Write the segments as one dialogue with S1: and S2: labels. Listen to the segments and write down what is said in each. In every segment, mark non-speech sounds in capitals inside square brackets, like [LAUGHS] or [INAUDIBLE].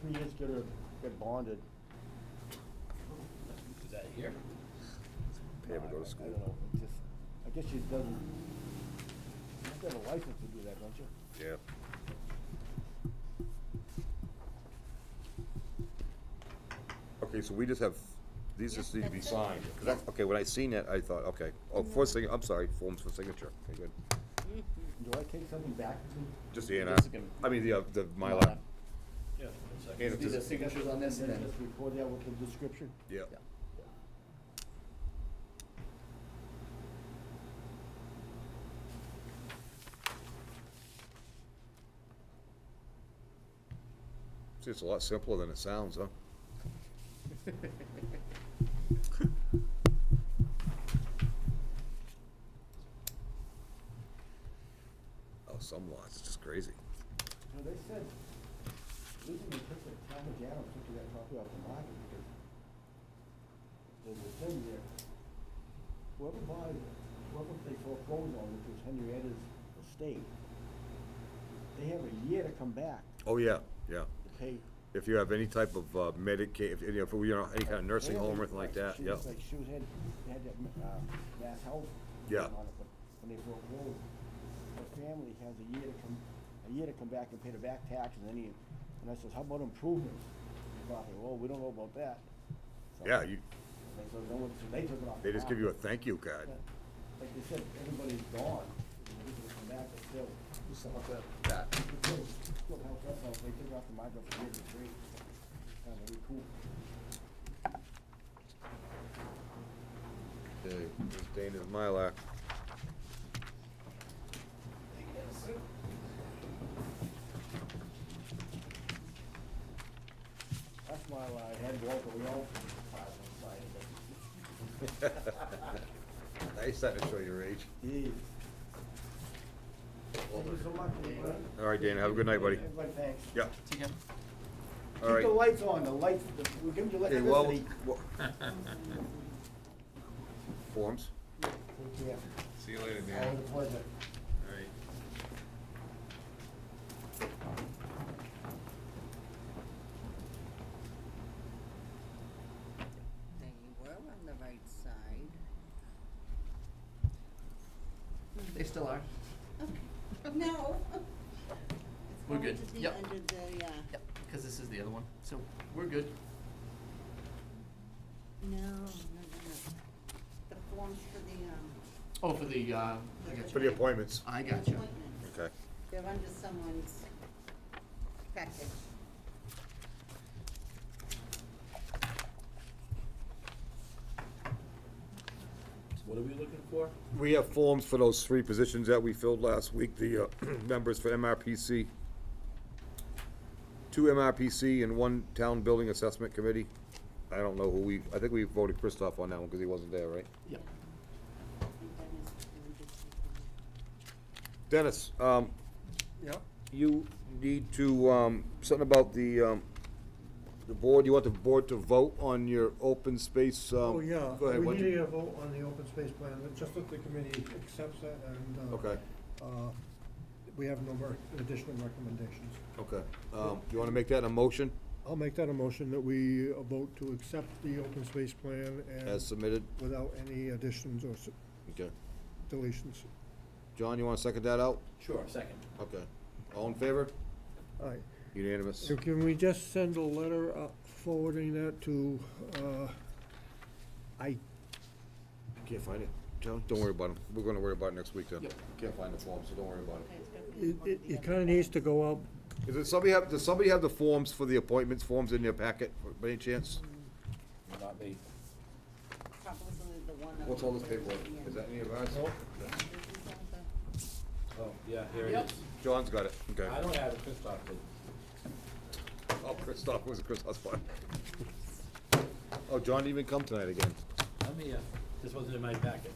S1: three years ago to get bonded.
S2: Is that here?
S3: Pay him to
S1: I-
S3: go
S1: I-
S3: to school.
S1: I don't know, it just, I guess she doesn't, you have to have a license to do that, don't you?
S3: Yeah. Okay, so we just have, these just need to be
S4: Yes,
S3: signed.
S4: that's
S3: 'Cause that's- Okay, when I seen that, I thought, okay, oh, for sign, I'm sorry, forms for signature, okay, good.
S1: Do I take something back to?
S3: Just the A and R.
S5: Just gonna-
S3: I mean, the, uh, the Mylar.
S2: Yeah. It's like-
S3: And if
S5: These are
S3: this-
S5: [LAUGHS] signatures on this
S1: And
S5: and
S1: then
S5: then,
S1: just record that with the description?
S3: E Yeah.
S5: yeah.
S3: See, it's a lot simpler than it sounds, huh? Oh, some lots, it's just crazy.
S1: No, they said, losing the tip of Thomas Adams took that property off the market because there's a thing there. Whoever buys, whoever they foreclose on, which was Henrietta's estate, they have a year to come back
S3: Oh, yeah, yeah.
S1: to pay.
S3: If you have any type of uh, Medicaid, if, you know, if you know, any kind of nursing home or anything like that,
S1: She
S3: yeah.
S1: was like, she was had, they had that, uh, mass health.
S3: Yeah.
S1: on it, but When they foreclose, the family has a year to come, a year to come back and pay the back tax and any, and I says, how about improvements? They thought, well, we don't know about that. So-
S3: Yeah, you,
S1: They took, they went- so they took it off.
S3: they
S1: the
S3: just give you a
S1: market.
S3: thank you card.
S1: But Like they said, everybody's gone, and they didn't come back, but still,
S3: That.
S1: still, still helped us out, they took it off the market for years and three. Kind of really cool.
S3: Okay, this Dana's Mylar. [LAUGHS]
S1: That's why I had Walter, we all filed on site, but.
S3: [LAUGHS] Now you're starting to show your age.
S1: Jeez. Thank you so much, everybody.
S3: All right, Dana, have a good night, buddy.
S1: Everybody, thanks.
S3: Yeah,
S5: Take care.
S3: all right.
S1: Keep the lights on, the lights, the- we're giving you
S3: Hey, well,
S1: electricity.
S3: well- [LAUGHS] Forms?
S1: Take care.
S6: See you later, Dan.
S1: Always a pleasure.
S6: All right.
S7: They were on the right side.
S5: They still are.
S7: Okay, no.
S5: We're good.
S7: It's going
S5: Yep.
S7: to the end of the, uh,
S5: Yep, because this is the other one, so we're good.
S7: no, no, no, no. The forms for the, um,
S5: Oh, for the, uh, I got
S3: For
S5: you.
S3: the appointments.
S5: I got you.
S7: appointments.
S3: Okay.
S7: They're under someone's package.
S2: What are we looking for?
S3: We have forms for those three positions that we filled last week, the uh, [CLEARS THROAT] members for MRPC. Two MRPC and one Town Building Assessment Committee. I don't know who we, I think we voted Christoph on that one because he wasn't there, right?
S5: Yep.
S7: I think Dennis is doing good people.
S3: Dennis, um,
S5: Yep.
S3: you need to, um, something about the, um, the board, you want the board to vote on your open space, um.
S8: Oh, yeah,
S3: Go ahead,
S8: we
S3: what'd
S8: need to
S3: you-
S8: get a vote on the open space plan, just that the committee accepts that and, uh,
S3: Okay.
S8: uh, we have no mer- additional recommendations.
S3: Okay, um, you wanna make that a motion
S8: I'll make that a motion that we uh, vote to accept the open space plan
S3: as
S8: and
S3: submitted?
S8: without any additions or s-
S3: Okay.
S8: deletions.
S3: John, you wanna second that out?
S2: Sure, second.
S3: Okay. All in favor?
S8: All right,
S3: Unanimous.
S8: so can we just send a letter uh, forwarding that to, uh, I,
S3: Can't find it. John, don't worry about them. We're gonna worry about it next week then.
S5: Yep.
S3: Can't find the form, so don't worry about
S7: Okay,
S3: it.
S7: it's gonna be
S8: it,
S7: one
S8: it,
S7: of the
S8: it
S7: other
S8: kinda
S7: guys.
S8: nees to go out,
S3: Is it, somebody have, does somebody have the forms for the appointments forms in their packet, by any chance?
S2: Not me.
S7: Probably the one. on
S3: What's all this
S7: the
S3: paperwork?
S7: end.
S3: Is that any of ours?
S7: This is all the-
S2: Oh, yeah, here it
S5: Yep.
S2: is.
S3: John's got it. Okay.
S2: I don't have it, Christoph did.
S3: Oh, Christoph, was it Christoph's fault? Oh, John didn't even come tonight again.
S2: Let me, uh, this wasn't in my packet.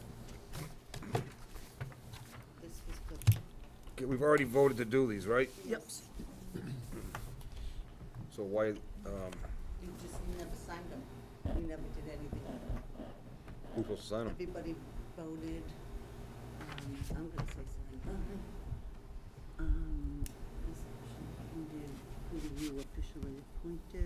S7: This was good.
S3: Okay, We've already voted to do these, right?
S7: Yep.
S3: So why, um,
S7: You just never signed them. You never did anything.
S3: who's supposed to sign them?
S7: Everybody voted, um, Uh, I'm gonna say something. Um, this action did who you officially appointed.